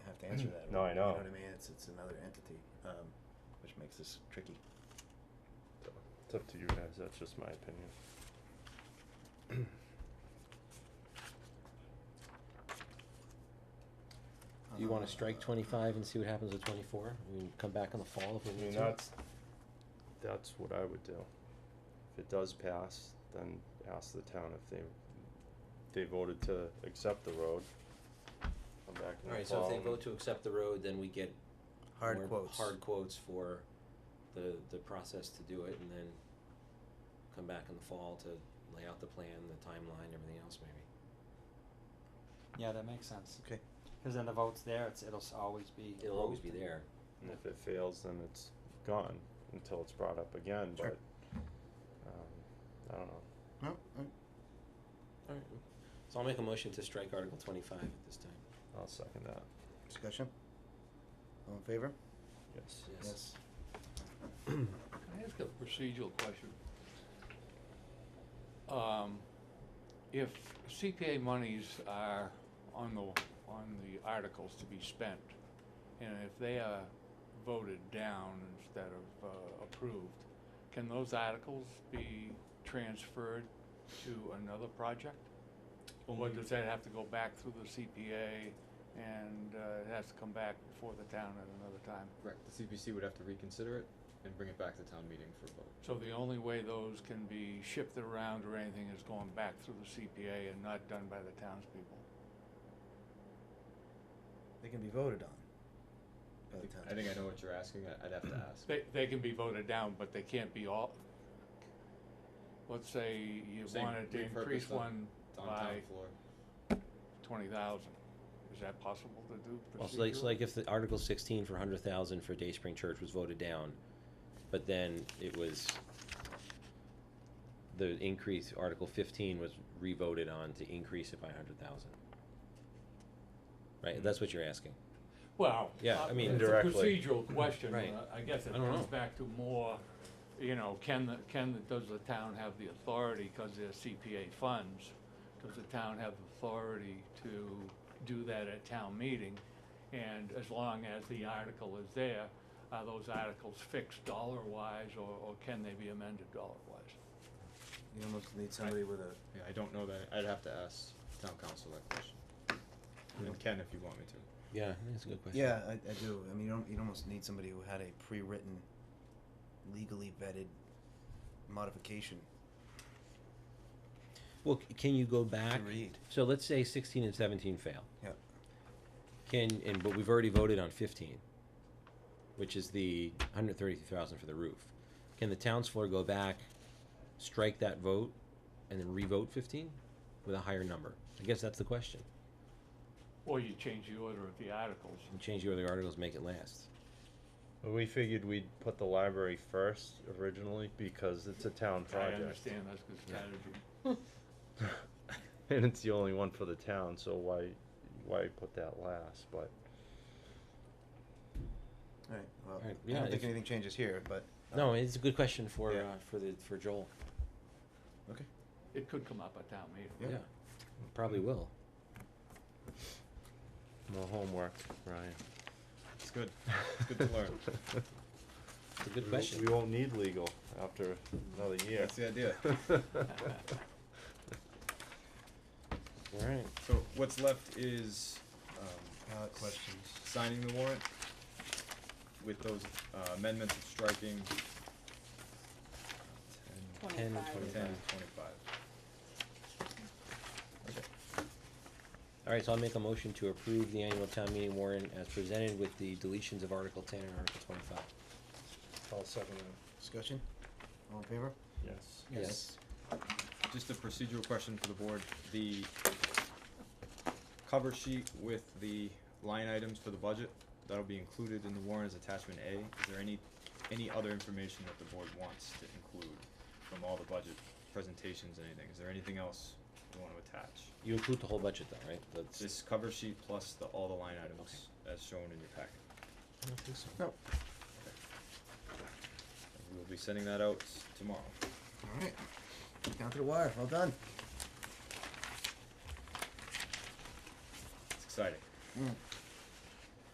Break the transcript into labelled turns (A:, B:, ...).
A: answer that.
B: No, I know.
A: You know what I mean? It's, it's another entity, um, which makes this tricky.
B: So, It's up to you guys, that's just my opinion.
C: Do you wanna strike
A: Uh,
C: twenty-five and see what happens with twenty-four? We can come back in the fall if
B: I
C: we need
B: mean,
C: to.
B: that's, that's what I would do. If it does pass, then ask the town if they, they voted to accept the road. Come back in the fall.
C: Alright, so if they
B: and-
C: vote to accept the road, then we get.
D: Hard
C: more
D: quotes.
C: Hard quotes for the, the process to do it and then come back in the fall to lay out the plan, the timeline, everything else maybe.
E: Yeah, that makes sense.
A: Okay.
E: Because then the vote's there, it's, it'll s- always be.
C: It'll always be
E: approved.
C: there.
B: And if it fails, then it's gone until it's brought up again,
A: Sure.
B: but, um, I don't know.
A: No, I,
C: Alright, so I'll make a motion to strike Article twenty-five at this time.
B: I'll second that,
A: discussion? All in favor?
B: yes.
C: Yes.
F: Can I ask a procedural question? Um, if CPA monies are on the, on the articles to be spent, and if they are voted down instead of, uh, approved, can those articles be transferred to another project? Or does that have to go back through the CPA and, uh, it has to come back before the town at another time?
G: Correct. The CPC would have to reconsider it and bring it back to town meeting for vote.
F: So the only way those can be shifted around or anything is going back through the CPA and not done by the townspeople?
A: They can be voted on. by
G: I
A: the
G: think,
A: town.
G: I think I know what you're asking. I- I'd have to ask.
F: They, they can be voted down, but they can't be all, let's say you
G: You're saying
F: wanted to
G: repurpose
F: increase
G: them
F: one
G: It's on town
F: by
G: floor.
F: twenty thousand. Is that possible to do
C: Well, it's like, it's
F: procedurally?
C: like if the Article sixteen for hundred thousand for Day Spring Church was voted down, but then it was the increase, Article fifteen was revoted on to increase it by hundred thousand. Right, that's what you're asking.
F: Well.
C: Yeah,
F: uh,
C: I mean-
F: It's a
B: Indirectly.
F: procedural question.
C: Right.
F: uh, I guess it
C: I don't
F: comes
C: know.
F: back to more, you know, can, the can, the- does the town have the authority, because they're CPA funds, does the town have authority to do that at town meeting? And as long as the article is there, are those articles fixed dollar-wise, or, or can they be amended dollar-wise?
A: You almost need somebody with a,
G: Yeah, I don't know that. I'd have to ask town council that question.
C: Hmm.
G: And Ken, if you want me to.
C: Yeah, I think that's a good question.
A: yeah, I, I do. I mean, you don't, you'd almost need somebody who had a pre-written, legally vetted modification
C: Well, c- can you go
A: to
C: back?
A: read.
C: So let's say sixteen and seventeen fail.
A: Yep.
C: Can, and, but we've already voted on fifteen, which is the hundred thirty thousand for the roof. Can the town's floor go back, strike that vote, and then revote fifteen with a higher number? I guess that's the question.
F: Or you change the order of the articles?
C: And change the other articles, make it last.
B: Well, We figured we'd put the library first originally because it's a town
F: I
B: project.
F: understand, that's good strategy.
B: And it's the only one for the town, so why, why put that last, but,
A: All right, well,
C: Alright,
A: I
C: yeah,
A: don't think
C: if-
A: anything changes here, but. uh,
C: No, it's a good question for,
A: Yeah.
C: uh, for the, for Joel.
A: Okay,
F: It could come up at town meeting.
A: Yeah.
C: Probably will.
B: no homework, Ryan.
G: It's good. It's good to learn.
C: It's a
B: We
C: good
B: won't-
C: question.
B: We won't need legal after another year.
G: That's the idea.
C: Alright.
G: So what's left is um,
A: ballot questions.
G: signing the warrant with those uh, amendments of striking
C: 10 and
G: 10,
C: 25.
G: 10, 25.
C: Alright, so I'll make a motion to approve the annual town meeting warrant as presented with the deletions of Article ten and Article twenty-five.
B: I'll second that.
A: Discussion? All in favor?
B: Yes.
C: Yes.
G: Just a procedural question for the board, the cover sheet with the line items for the budget, that'll be included in the warrant as attachment A. Is there any, any other information that the board wants to include from all the budget presentations, anything? Is there anything else you want to attach?
C: You include the whole budget though, right? That's,
G: This cover sheet plus the, all the line items as shown in your packet.
C: I don't think so.
A: No.
G: And We'll be sending that out tomorrow.
A: All right, down to the wire, well done.
G: It's exciting.
A: Mm.